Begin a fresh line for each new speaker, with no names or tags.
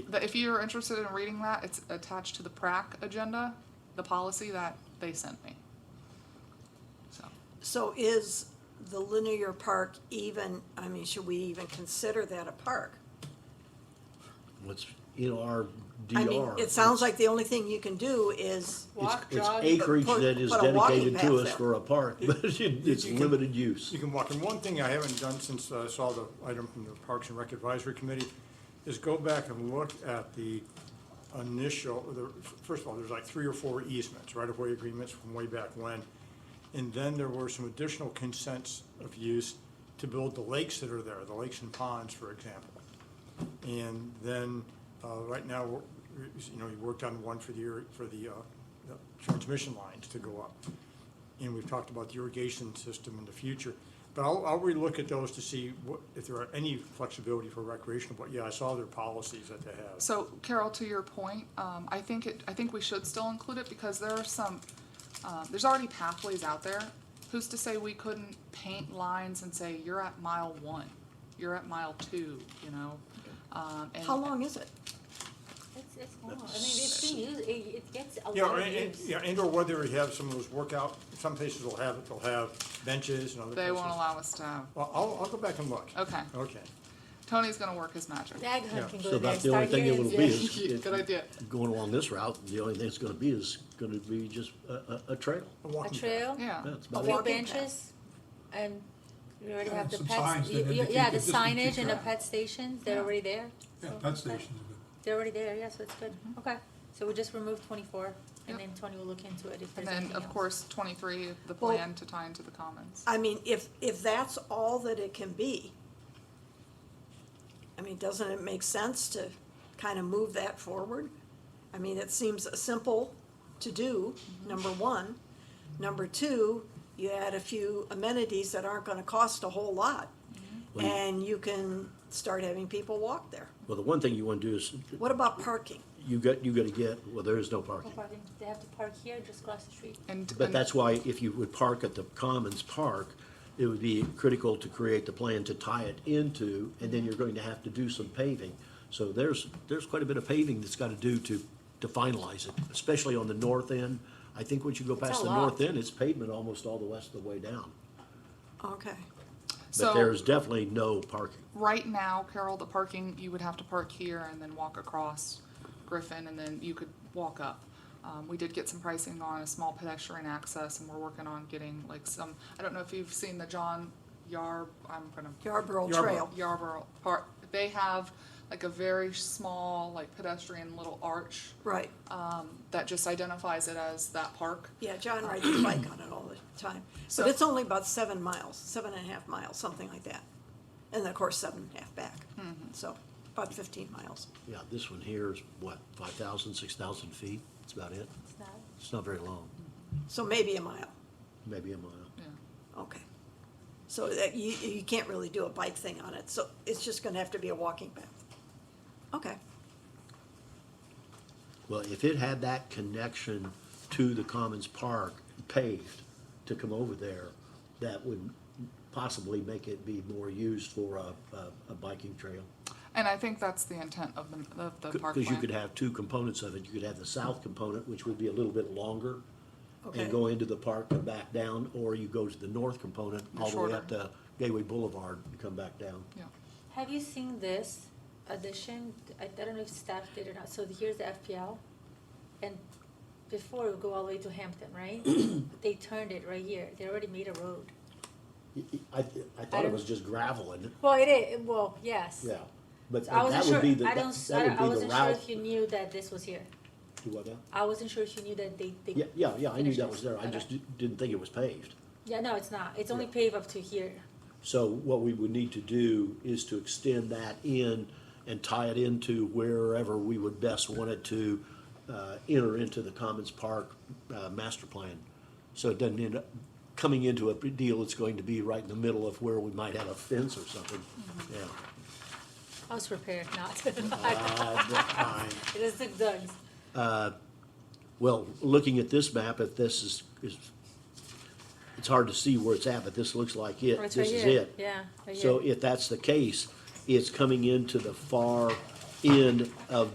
But if you're interested in reading that, it's attached to the PrAC agenda, the policy that they sent me. So,
So is the linear park even, I mean, should we even consider that a park?
What's, you know, our
I mean,
DR.
it sounds like the only thing you can do is,
It's,
Walk,
it's
jog.
acreage
put-
that is
put a walking
dedicated to
path
us
there.
for a park, but it- it's
you can-
limited use.
You can walk, and one thing I haven't done since I saw the item from the Parks and Rec Advisory Committee is go back and look at the initial, the, first of all, there's like three or four easements, right-of-way agreements from way back when. And then there were some additional consents of use to build the lakes that are there, the lakes and ponds, for example. And then, uh, right now, we're- you know, you worked on one for the, ir- for the, uh, the transmission lines to go up. And we've talked about the irrigation system in the future. But I'll, I'll relook at those to see what, if there are any flexibility for recreational, but yeah, I saw their policies that they have.
so Carol, to your point, um, I think it, I think we should still include it because there are some, um, there's already pathways out there. Who's to say we couldn't paint lines and say, you're at mile one, you're at mile two, you know? Um, and.
how long is it?
It's, it's long. I mean, it's been used, it, it gets a
Yeah,
lot
or,
of
and,
use.
yeah, and or whether we have some of those workout, some places will have it, they'll have benches and other places.
They won't allow us to have,
Well, I'll, I'll go back and look.
okay,
Okay.
Tony's gonna work his magic.
Dag
Yeah.
hunt can
So
go there,
about the only
start
thing
here
it
and
will be
there.
is.
Good idea.
Going along this route, the only thing it's gonna be is gonna be just a, a, a trail.
A
A
walking path.
trail,
Yeah.
That's
a
about
few
it.
walking path.
benches, and you already have the
Some
pets.
signs that
you- you-
indicate
Yeah, the
that this can be
signage and the
tracked.
pet stations, they're already there.
Yeah,
so-
pet stations are good.
They're already there, yeah, so it's good. Okay, so we just remove twenty-four,
Yep.
and then Tony will look into it if
And
there's anything
then,
else.
of course, twenty-three, the
Well-
plan to tie into the commons.
I mean, if, if that's all that it can be, I mean, doesn't it make sense to kind of move that forward? I mean, it seems simple to do, number one. Number two, you add a few amenities that aren't gonna cost a whole lot.
Well, you-
And you can start having people walk there.
Well, the one thing you wanna do is,
What about parking?
you got, you gotta get, well, there is no
No
parking.
parking. They have to park here, just cross the street.
And,
But
and-
that's why if you would park at the Commons Park, it would be critical to create the plan to tie it into, and then you're going to have to do some paving. So there's, there's quite a bit of paving that's gotta do to, to finalize it, especially on the north end. I think once you go past
a
the
lot.
north end, it's pavement almost all the rest of the way down.
Okay,
But
so,
there's definitely no parking.
right now, Carol, the parking, you would have to park here and then walk across Griffin, and then you could walk up. Um, we did get some pricing on a small pedestrian access, and we're working on getting like some, I don't know if you've seen the John Yar, I'm gonna
Yarborough
Yarborough.
Trail.
Yarborough Park, they have like a very small, like pedestrian little arch
Right,
that just identifies it as that park.
yeah, John rides his bike on it all the time.
So-
But it's only about seven miles, seven and a half miles, something like that. And then, of course, seven and a half back, so about fifteen miles.
Yeah, this one here is what, five thousand, six thousand feet? That's about it.
It's not,
It's not very long,
So maybe a mile,
maybe a mile.
Yeah.
okay. So that, you, you can't really do a bike thing on it, so it's just gonna have to be a walking path. Okay,
Well, if it had that connection to the Commons Park paved to come over there, that would possibly make it be more used for a, a, a biking trail.
And I think that's the intent of the, of the park
Because you
plan.
could have two components of it. You could have the south component, which would be a little bit longer
Okay.
and go into the park and back down, or you go to the north component, all the way up
Shorter.
to Gateway Boulevard and come back down.
Yeah.
Have you seen this addition? I I don't know if staff did or not. So here's the FPL. And before we go all the way to Hampton, right? They turned it right here. They already made a road.
I, I thought it was just gravel and,
Well, it is, well, yes.
yeah, but
I wasn't
that
sure,
would be the,
I
that
don't, s-
that
I I
would be the
wasn't sure
route.
if you knew that this was here.
Do what now?
I wasn't sure if you knew that they, they.
Yeah, yeah, yeah, I knew
finished
that
this.
was there, I
Okay.
just di- didn't think it was paved.
Yeah, no, it's not. It's only
Yeah.
paved up to here.
So what we would need to do is to extend that in and tie it into wherever we would best want it to uh, enter into the Commons Park uh, master plan. So it doesn't end up coming into a deal that's going to be right in the middle of where we might have a fence or something,
Mm-hmm.
yeah.
I was prepared not.
Uh, but I-
It is the Doug's.
Well, looking at this map, if this is, is, it's hard to see where it's at, but this looks like it,
Right
this
here.
is it.
Yeah, right
So
here.
if that's the case, it's coming into the far end of